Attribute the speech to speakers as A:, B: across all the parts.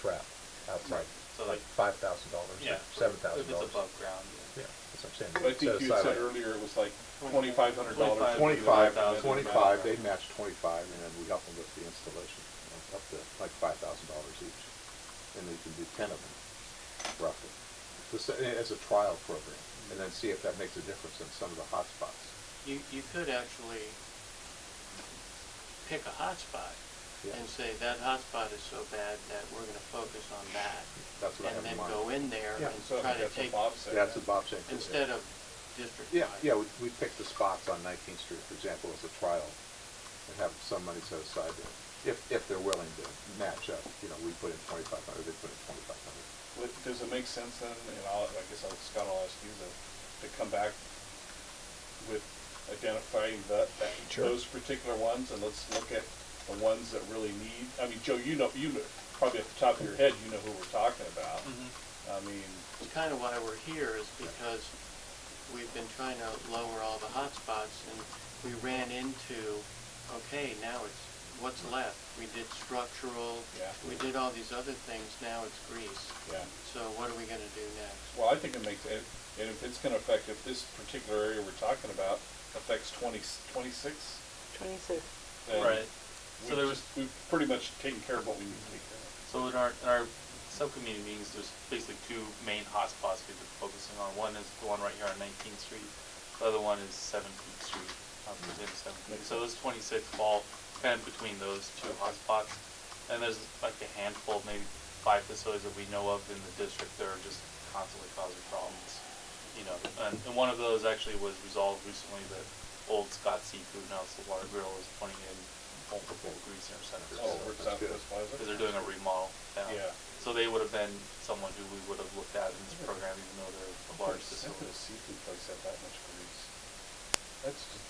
A: trap outside,
B: So
A: like
B: like-
A: five thousand dollars or
B: Yeah. for-
A: seven thousand
B: If it's
A: dollars.
B: above ground.
A: Yeah, that's what I'm saying.
C: But I think
A: Set
C: you
A: aside
C: said
A: like
C: earlier it was like twenty-five hundred dollars. And
B: 25,
C: then-
A: Twenty-five,
B: 25,000.
A: twenty-five, they'd match twenty-five, and then we help them with the installation, uh, up to like five thousand dollars each. And they can do ten of them, roughly. This, uh, as a trial program, and then see if that makes a difference in some of the hot spots.
D: You, you could actually pick a hotspot
A: Yeah.
D: and say, that hotspot is so bad that we're gonna focus on that.
A: That's what I have in
D: And then go
A: mind.
D: in there
A: Yeah,
C: So
D: and
C: I
D: try to take,
C: think that's what Bob said.
A: That's what Bob's saying. too, yeah.
D: instead of district.
A: Yeah,
D: wide.
A: yeah, we, we pick the spots on Nineteenth Street, for example, as a trial, and have some money set aside there, if, if they're willing to match up, you know, we put in twenty-five hundred, they put in twenty-five hundred.
C: What- Does it make sense then, and I'll, I guess I'll, Scott, I'll ask you to, to come back with identifying the, that,
E: Sure.
C: those particular ones, and let's look at the ones that really need, I mean, Joe, you know, you know, probably at the top of your head, you know who we're talking about.
D: Mm-hmm.
C: I mean,
D: It's kind of why we're here is because we've been trying to lower all the hotspots and we ran into, okay, now it's, what's left? We did structural,
C: Yeah.
D: we did all these other things, now it's grease.
C: yeah.
D: So what are we gonna do next?
C: Well, I think it makes, it- and if it's gonna affect, if this particular area we're talking about affects twenty, twenty-six,
F: Twenty-six.
C: then
B: Right. So
C: we've
B: there
C: just- We've pretty much taken care of what we need to take care of.
B: So in our, in our subcommittee meetings, there's basically two main hotspots we've been focusing on. One is the one right here on Nineteenth Street. The other one is Seventeenth Street, on Virginia Seventeenth. So those twenty-six fall kind of between those two hotspots. And there's like a handful, maybe five facilities that we know of in the district that are just constantly causing problems. You know, and, and one of those actually was resolved recently, the old Scott Seafood, now it's the Water Grill, is putting in multiple grease interceptors.
C: Oh,
B: So-
C: we're
A: That's good.
C: Southwest Plaza?
B: because they're doing a remodel now.
C: Yeah.
B: So they would have been someone who we would have looked at in this program, even though they're a large
C: How could a
B: facility.
C: seafood place have that much grease? That's just,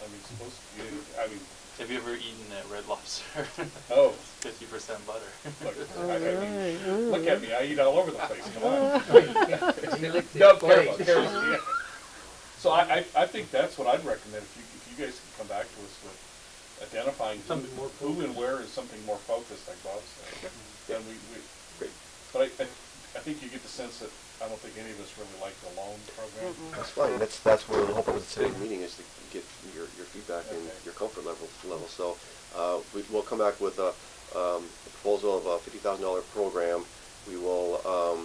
C: I mean, supposed to be, I mean,
B: Have you ever eaten at Red Lobster?
C: oh,
B: Fifty percent butter.
C: look,
F: All
C: I, I mean,
F: right, all
C: look
F: right.
C: at me, I eat all over the place, come on. No, careful, careful, yeah. So I, I, I think that's what I'd recommend, if you, if you guys can come back to us with identifying who,
A: Something more
C: who and where is something more focused, like Bob said. Then we, we,
A: Great.
C: but I, I, I think you get the sense that I don't think any of us really like the loan program.
G: That's fine, that's, that's what we're hoping with today's meeting, is to get your, your feedback and
C: Okay.
G: your comfort level, level. So, uh, we, we'll come back with a, um, a proposal of a fifty thousand dollar program. We will, um,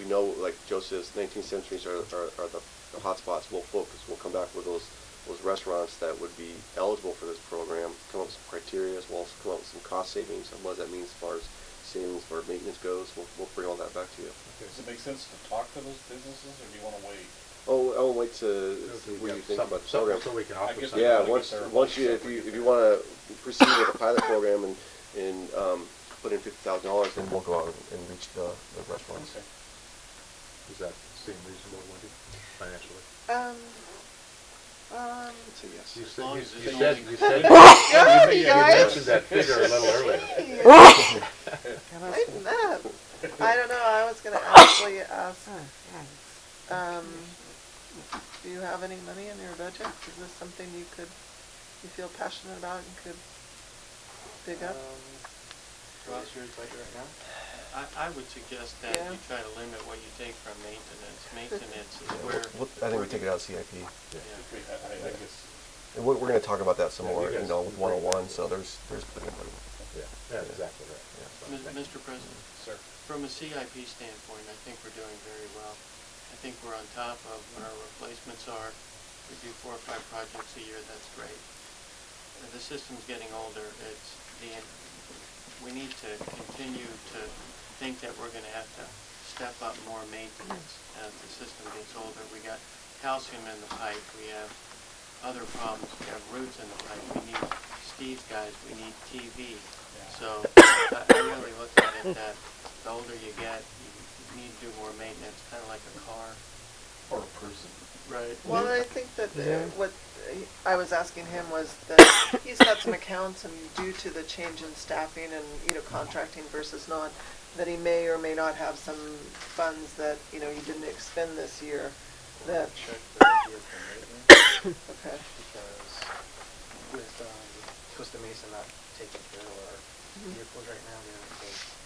G: we know, like Joe says, nineteenth centuries are, are, are the, the hotspots, we'll focus, we'll come back with those, those restaurants that would be eligible for this program, come up with some criteria, we'll also come up with some cost savings, and what that means as far as savings for maintenance goes, we'll, we'll bring all that back to you.
C: Does it make sense to talk to those businesses, or do you wanna wait?
G: Oh, I'll wait to,
A: So
G: see
A: we
G: what you
A: have
G: think
A: some-
G: about the
A: some-
G: program.
A: So we can
C: I
A: offer
C: guess
A: something.
G: Yeah,
C: Like
G: once,
C: if they're
G: once you, if
C: like-
G: you, if you wanna proceed with a pilot program and, and, um, put in fifty thousand dollars, then we'll go out and reach the, the restaurants.
C: Okay.
A: Does that seem reasonable, Wendy, financially?
F: Um, um,
G: So yes.
A: You
D: As
A: said,
D: long
A: you
D: as
A: you
D: it's
A: said,
D: only-
A: you said, you
F: sorry,
A: mentioned
F: guys.
A: that figure a little earlier.
F: Lighten up. I don't know, I was gonna actually ask, um, do you have any money in your budget? Is this something you could, you feel passionate about and could dig up?
D: Ross, yours right now? I, I would suggest that
F: Yeah.
D: you try to limit what you take from maintenance. Maintenance is where,
G: I think we take it out of CIP,
D: yeah.
C: Okay, I, I, I guess,
G: and we're, we're gonna talk about that some
A: Yeah, you
G: more, you
A: guys
G: know, with
A: can bring that
G: one-on-one,
A: up.
G: so there's, there's plenty of money.
A: Yeah, that's exactly right.
D: Mis- Mr. President,
C: sir.
D: from a CIP standpoint, I think we're doing very well. I think we're on top of what our replacements are. We do four or five projects a year, that's great. Uh, The system's getting older, it's, the, we need to continue to think that we're gonna have to step up more maintenance as the system gets older. We got calcium in the pipe, we have other problems, we have roots in the pipe, we need Steve guys, we need TV. So I I really look at it that the older you get, you need to do more maintenance, kinda like a car.
C: Or a person.
D: Right.
F: Well, I think that uh,
E: Yeah.
F: what uh, I was asking him was that he's got some accounts and due to the change in staffing and, you know, contracting versus not, that he may or may not have some funds that, you know, he didn't expend this year, that,
H: check for a year from maintenance
F: okay.
H: because with um, Costa Mesa not taking care of our vehicles right now, they're, they